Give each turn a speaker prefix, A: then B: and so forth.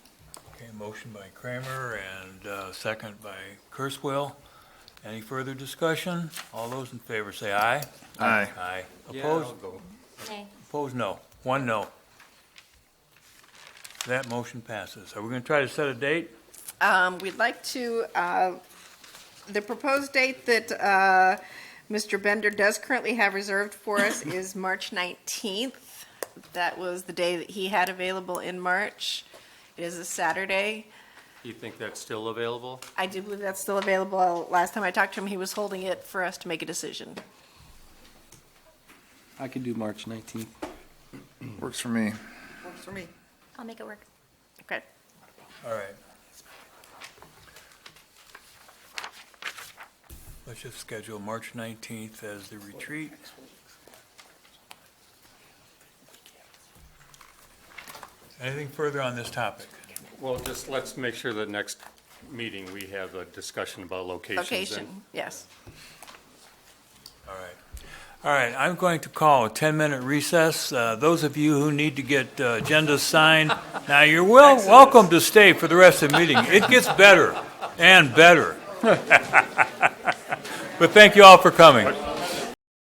A: motion by Kramer and uh, second by Kurzweil. Any further discussion? All those in favor say aye.
B: Aye.
A: Aye. Opposed?
C: Okay.
A: Opposed, no. One no. That motion passes. Are we going to try to set a date?
D: Um, We'd like to, uh, the proposed date that uh, Mr. Bender does currently have reserved for us is March 19th. That was the day that he had available in March. It is a Saturday.
E: You think that's still available?
D: I do believe that's still available. Last time I talked to him, he was holding it for us to make a decision.
F: I could do March 19th.
B: Works for me.
D: Works for me.
C: I'll make it work.
D: Okay.
A: All right. Let's just schedule March 19th as the retreat. Anything further on this topic?
E: Well, just let's make sure that next meeting, we have a discussion about locations. and-
D: Location, yes.
A: All right. All right, I'm going to call a 10-minute recess. Uh, Those of you who need to get uh, agendas signed, now you're well, welcome to stay for the rest of the meeting. It gets better and better. But thank you all for coming.